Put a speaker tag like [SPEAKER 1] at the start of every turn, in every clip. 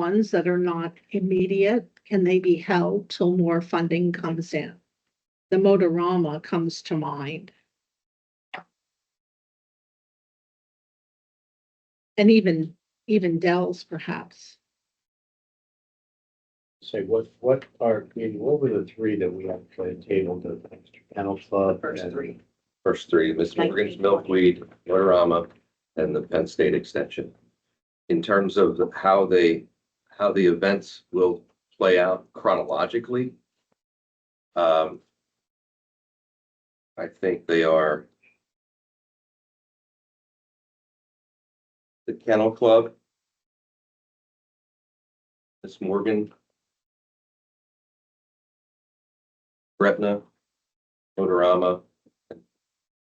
[SPEAKER 1] funds that are not immediate, can they be held till more funding comes in? The Motorama comes to mind. And even, even Dell's perhaps.
[SPEAKER 2] Say, what, what are, I mean, what were the three that we have played table, the extra panel club?
[SPEAKER 3] First
[SPEAKER 2] and-
[SPEAKER 3] three.
[SPEAKER 4] First three, Miss Morgan's Milkweed, Lorama, and the Penn State Extension. In terms of how they, how the events will play out chronologically, um, I think they are the Kennel Club, Miss Morgan, Gretna, Motorama,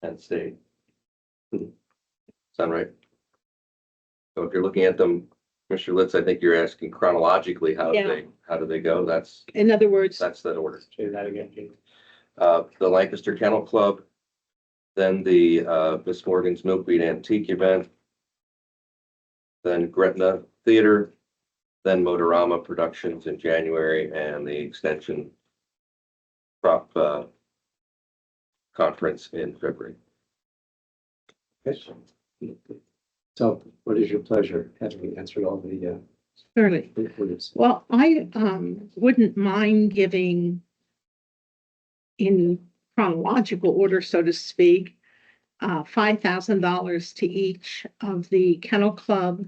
[SPEAKER 4] Penn State. Sound right? So if you're looking at them, Mr. Litz, I think you're asking chronologically, how do
[SPEAKER 1] Yeah.
[SPEAKER 4] they, how do they go? That's,
[SPEAKER 1] In other words,
[SPEAKER 4] that's that order.
[SPEAKER 2] Say that again, Jim.
[SPEAKER 4] Uh, the Lancaster Kennel Club, then the, uh, Miss Morgan's Milkweed Antique Event, then Gretna Theater, then Motorama Productions in January, and the Extension Prop, uh, Conference in February.
[SPEAKER 2] Yes. So what is your pleasure? Have we answered all the, uh,
[SPEAKER 1] certainly.
[SPEAKER 2] inquiries?
[SPEAKER 1] Well, I um wouldn't mind giving in chronological order, so to speak, uh five thousand dollars to each of the Kennel Club,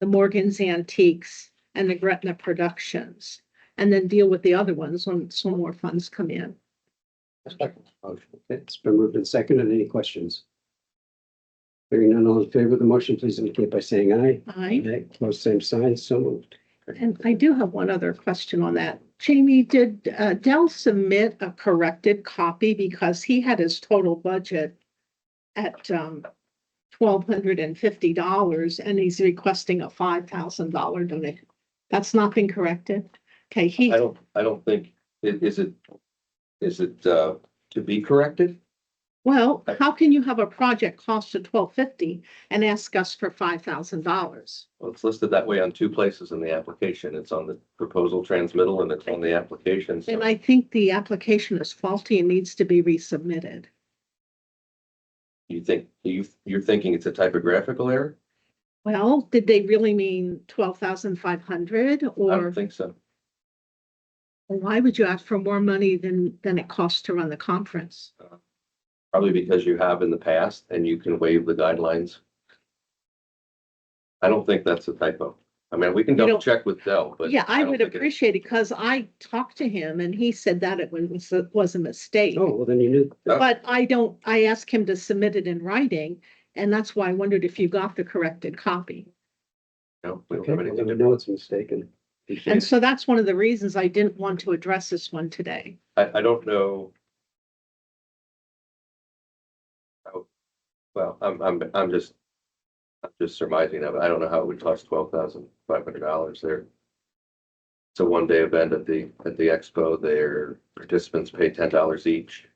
[SPEAKER 1] the Morgan's Antiques, and the Gretna Productions, and then deal with the other ones when some more funds come in.
[SPEAKER 2] Motion. Okay, It's been moved and seconded. Any questions? Hearing none, all in favor of the motion, please indicate by saying aye.
[SPEAKER 1] I,
[SPEAKER 2] Close same sign, so moved.
[SPEAKER 1] and I do have one other question on that. Jamie, did uh Dell submit a corrected copy because he had his total budget at um twelve hundred and fifty dollars and he's requesting a five thousand dollar donation. That's not been corrected? Okay, he,
[SPEAKER 4] I don't, I don't think, i- is it, is it, uh, to be corrected?
[SPEAKER 1] well, how can you have a project cost of twelve fifty and ask us for five thousand dollars?
[SPEAKER 4] Well, it's listed that way on two places in the application. It's on the proposal transmittal and it's on the application. so-
[SPEAKER 1] And I think the application is faulty and needs to be resubmitted.
[SPEAKER 4] You think, you, you're thinking it's a typographical error?
[SPEAKER 1] Well, did they really mean twelve thousand five hundred
[SPEAKER 4] I
[SPEAKER 1] or
[SPEAKER 4] don't think so.
[SPEAKER 1] why would you ask for more money than, than it costs to run the conference?
[SPEAKER 4] Probably because you have in the past and you can waive the guidelines. I don't think that's a typo. I mean, we can
[SPEAKER 1] You don't-
[SPEAKER 4] double check with Dell, but.
[SPEAKER 1] Yeah, I
[SPEAKER 4] don't
[SPEAKER 1] would
[SPEAKER 4] think it-
[SPEAKER 1] appreciate it because I talked to him and he said that it was, was a mistake.
[SPEAKER 2] Oh, well, then you knew.
[SPEAKER 4] Oh.
[SPEAKER 1] But I don't, I asked him to submit it in writing and that's why I wondered if you got the corrected copy.
[SPEAKER 4] No, we don't
[SPEAKER 2] Okay,
[SPEAKER 4] have
[SPEAKER 2] well,
[SPEAKER 4] anything
[SPEAKER 2] then
[SPEAKER 4] to
[SPEAKER 2] we know it's mistaken.
[SPEAKER 1] And so that's one of the reasons I didn't want to address this one today.
[SPEAKER 4] I, I don't know. how- Oh, Well, I'm, I'm, I'm just, I'm just surmising that, but I don't know how it would cost twelve thousand five hundred dollars there. It's a one-day event at the, at the expo, their participants pay ten dollars each,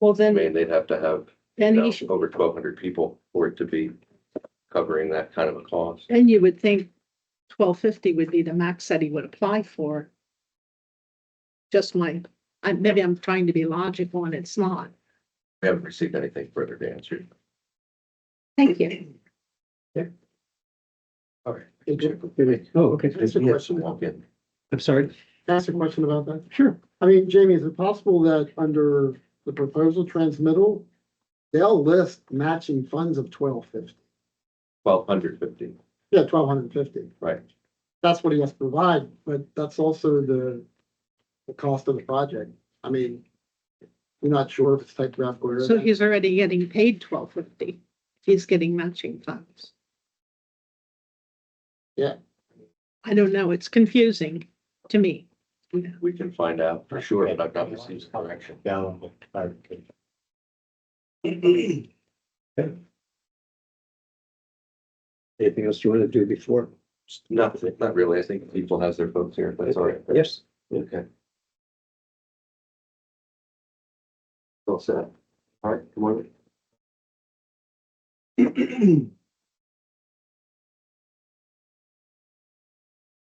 [SPEAKER 1] Well,
[SPEAKER 4] I
[SPEAKER 1] then,
[SPEAKER 4] mean, they'd have to have, you
[SPEAKER 1] then
[SPEAKER 4] know,
[SPEAKER 1] he should,
[SPEAKER 4] over twelve hundred people for it to be covering that kind of a cost.
[SPEAKER 1] then you would think twelve fifty would be the max that he would apply for. Just my, I, maybe I'm trying to be logical and it's not.
[SPEAKER 4] We haven't received anything further to answer.
[SPEAKER 1] Thank you.
[SPEAKER 4] All right.
[SPEAKER 2] Oh, okay.
[SPEAKER 5] That's a
[SPEAKER 4] Yes,
[SPEAKER 5] question.
[SPEAKER 4] walk in.
[SPEAKER 2] I'm sorry.
[SPEAKER 5] Can I Ask a question about that.
[SPEAKER 2] Sure.
[SPEAKER 5] I mean, Jamie, is it possible that under the proposal transmittal, they'll list matching funds of twelve fifty?
[SPEAKER 4] Twelve hundred fifty,
[SPEAKER 5] Yeah, twelve hundred and fifty.
[SPEAKER 4] right.
[SPEAKER 5] That's what he has to provide, but that's also the, the cost of the project. I mean, we're not sure if it's typographical or.
[SPEAKER 1] So he's already getting paid twelve fifty. He's getting matching funds.
[SPEAKER 5] Yeah.
[SPEAKER 1] I don't know. It's confusing to me.
[SPEAKER 4] We can find out for sure, but I've not received correction.
[SPEAKER 2] Down with clarification. Okay. Anything else you want to do before?
[SPEAKER 4] Nothing, not really. I think people has their folks here, if that's all right.
[SPEAKER 2] Yes.
[SPEAKER 4] Okay. All set. All right, come on.